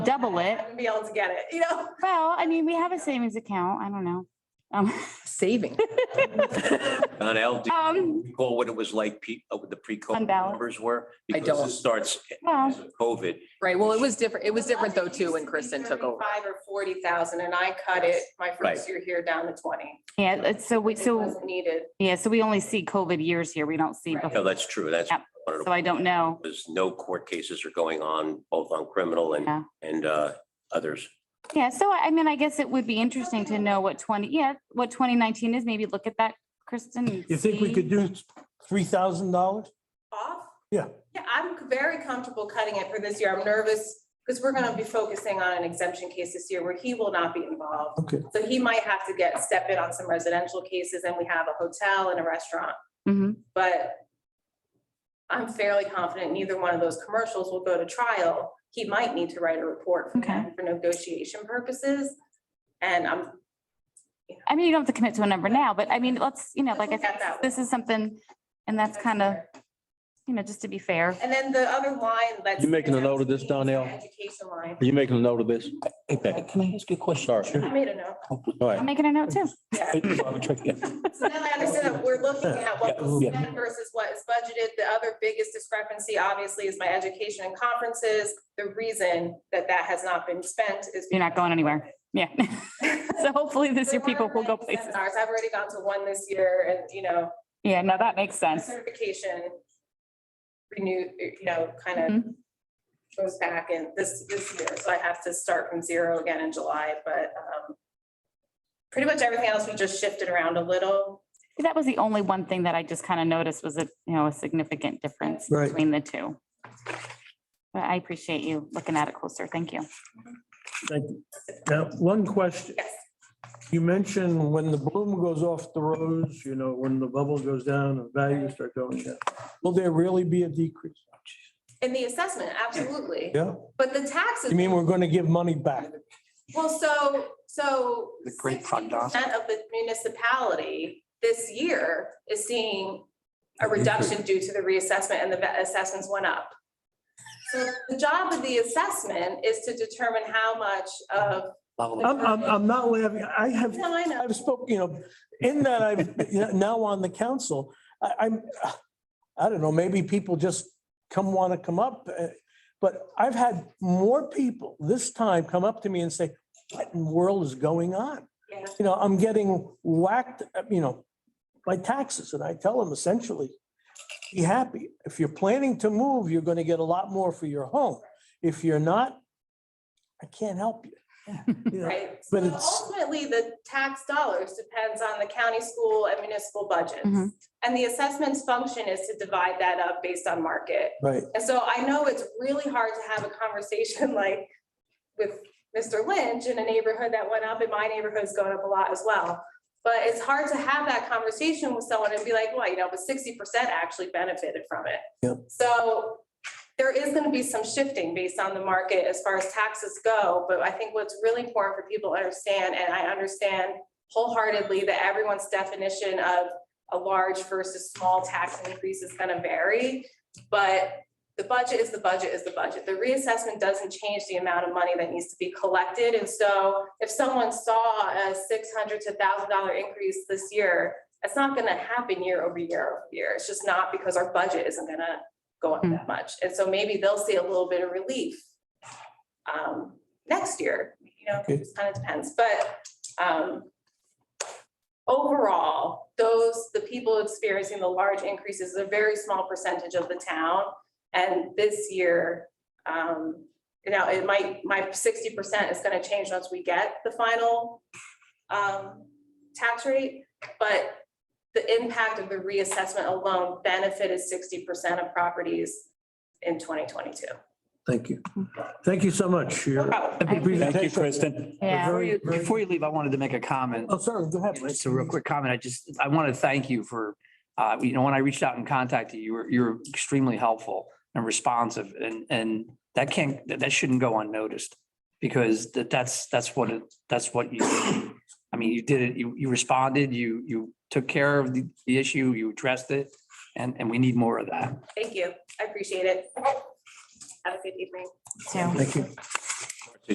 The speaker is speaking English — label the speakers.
Speaker 1: double it.
Speaker 2: and be able to get it, you know?
Speaker 1: Well, I mean, we have a savings account. I don't know. Um,
Speaker 3: saving.
Speaker 4: Donnell, do you
Speaker 1: um,
Speaker 4: recall what it was like, pe- uh, what the pre-COVID
Speaker 1: Unbalanced.
Speaker 4: numbers were?
Speaker 3: I
Speaker 4: Because
Speaker 3: don't.
Speaker 4: this starts
Speaker 1: well,
Speaker 4: as of COVID.
Speaker 3: Right. Well, it was different. It was different though
Speaker 2: It used
Speaker 3: too when
Speaker 2: to be
Speaker 3: Kristen took over.
Speaker 2: 35 or forty thousand and I cut it my first
Speaker 4: Right.
Speaker 2: year here down to twenty.
Speaker 1: yeah, it's so we,
Speaker 2: It
Speaker 1: so,
Speaker 2: wasn't Needed.
Speaker 1: yeah, so we only see COVID years here. We don't see,
Speaker 2: Right.
Speaker 4: No,
Speaker 1: before.
Speaker 4: that's true. That's.
Speaker 1: Yep.
Speaker 4: one of
Speaker 1: so
Speaker 4: the-
Speaker 1: I don't know.
Speaker 4: There's no court cases are going on, both on criminal
Speaker 1: Yeah.
Speaker 4: and, and uh, others.
Speaker 1: Yeah, so I I mean, I guess it would be interesting to know what twenty, yeah, what twenty nineteen is. Maybe look at that, Kristen. and
Speaker 5: You think we
Speaker 1: see.
Speaker 5: could do three thousand dollars?
Speaker 2: Off?
Speaker 5: Yeah.
Speaker 2: Yeah, I'm very comfortable cutting it for this year. I'm nervous because we're gonna be focusing on an exemption case this year where he will not be involved.
Speaker 5: Okay,
Speaker 2: So he might have to get, step in on some residential cases and we have a hotel and a restaurant,
Speaker 1: Mhm.
Speaker 2: but I'm fairly confident neither one of those commercials will go to trial. He might need to write a report for
Speaker 1: Okay.
Speaker 2: them for negotiation purposes. And I'm
Speaker 1: I mean, you don't have to commit to a number now, but I mean, let's, you know, like I
Speaker 2: Look at
Speaker 1: said,
Speaker 2: that
Speaker 1: this is something, and that's kind of,
Speaker 2: fair.
Speaker 1: you know, just to be fair.
Speaker 2: And then the other line that's.
Speaker 6: You making a note of this, Donnell?
Speaker 2: Education line.
Speaker 6: Are you making a note of this?
Speaker 7: Hey, Becca, can I ask you a question?
Speaker 2: I made a note.
Speaker 7: All
Speaker 1: I'm
Speaker 7: right.
Speaker 1: making a note too.
Speaker 2: Yeah.
Speaker 7: Hey, Barbara, check it.
Speaker 2: So now I understand that we're looking at what was
Speaker 7: Yeah, yeah.
Speaker 2: spent versus what is budgeted. The other biggest discrepancy, obviously, is my education and conferences. The reason that that has not been spent is.
Speaker 1: You're not going anywhere. Yeah. So hopefully this
Speaker 2: There
Speaker 1: year people
Speaker 2: weren't
Speaker 1: will go
Speaker 2: many
Speaker 1: places.
Speaker 2: Seminars. I've already gone to one this year and, you know,
Speaker 1: Yeah, no, that makes sense.
Speaker 2: certification renew, you know, kind of
Speaker 1: Mhm.
Speaker 2: goes back in this, this year. So I have to start from zero again in July, but um, pretty much everything else we just shifted around a little.
Speaker 1: See, That was the only one thing that I just kind of noticed was a, you know, a significant difference
Speaker 5: Right.
Speaker 1: between the two. But I appreciate you looking at it closer. Thank you.
Speaker 5: thank you. Now, one question.
Speaker 2: Yes.
Speaker 5: You mentioned when the bloom goes off the rose, you know, when the bubble goes down and values start going Oh, down, will there really be a decrease?
Speaker 2: In the assessment, absolutely.
Speaker 5: Yeah,
Speaker 2: But the taxes.
Speaker 5: you mean we're gonna give money back?
Speaker 2: Well, so, so.
Speaker 7: The great fund, huh?
Speaker 2: percent Of the municipality this year is seeing a reduction due to the reassessment and the va- assessments went up. So the job of the assessment is to determine how much of.
Speaker 5: I'm, I'm, I'm not laughing. I have,
Speaker 2: No, I know.
Speaker 5: I've spoken, you know, in that I've now on the council, I, I'm, I don't know, maybe people just come, want to come up. uh, But I've had more people this time come up to me and say, what in the world is going on?
Speaker 2: Yeah.
Speaker 5: you know, I'm getting whacked, uh, you know, by taxes. And I tell them essentially, be happy. If you're planning to move, you're going to get a lot more for your home. If you're not, I can't help you. You know,
Speaker 2: Right, so
Speaker 5: But it's-
Speaker 2: ultimately, the tax dollars depends on the county, school, and municipal budgets.
Speaker 1: Mhm.
Speaker 2: And the assessment's function is to divide that up based on market.
Speaker 5: Right.
Speaker 2: And so I know it's really hard to have a conversation like with Mr. Lynch in a neighborhood that went up, and my neighborhood's going up a lot as well. But it's hard to have that conversation with someone and be like, well, you know, but sixty percent actually benefited from it.
Speaker 5: Yep.
Speaker 2: So there is gonna be some shifting based on the market as far as taxes go, but I think what's really important for people to understand, and I understand wholeheartedly that everyone's definition of a large versus small tax increase is gonna vary. But the budget is the budget is the budget. The reassessment doesn't change the amount of money that needs to be collected. And so if someone saw a six hundred to thousand dollar increase this year, it's not gonna happen year over year over year. It's just not because our budget isn't gonna go up that much. And so maybe they'll see a little bit of relief um, next year, you know, it just kind of depends. But um, overall, those, the people experiencing the large increases is a very small percentage of the town. And this year, um, you know, it might, my sixty percent is gonna change once we get the final um, tax rate, but the impact of the reassessment alone benefited sixty percent of properties in twenty twenty-two.
Speaker 5: Thank you. Thank you so much. Your-
Speaker 7: Thank you, Kristen.
Speaker 1: Yeah.
Speaker 5: Very, very-
Speaker 8: Before you leave, I wanted to make a comment.
Speaker 5: Oh, sorry, go ahead.
Speaker 8: It's a real quick comment. I just, I want to thank you for, uh, you know, when I reached out and contacted you, you were, you were extremely helpful and responsive and, and that can't, that that shouldn't go unnoticed. Because that, that's, that's what, it that's what you, I mean, you did it, you, you responded, you, you took care of the, the issue, you addressed it. And, and we need more of that.
Speaker 2: Thank you. I appreciate it. Have a good evening.
Speaker 1: So,
Speaker 5: Thank you.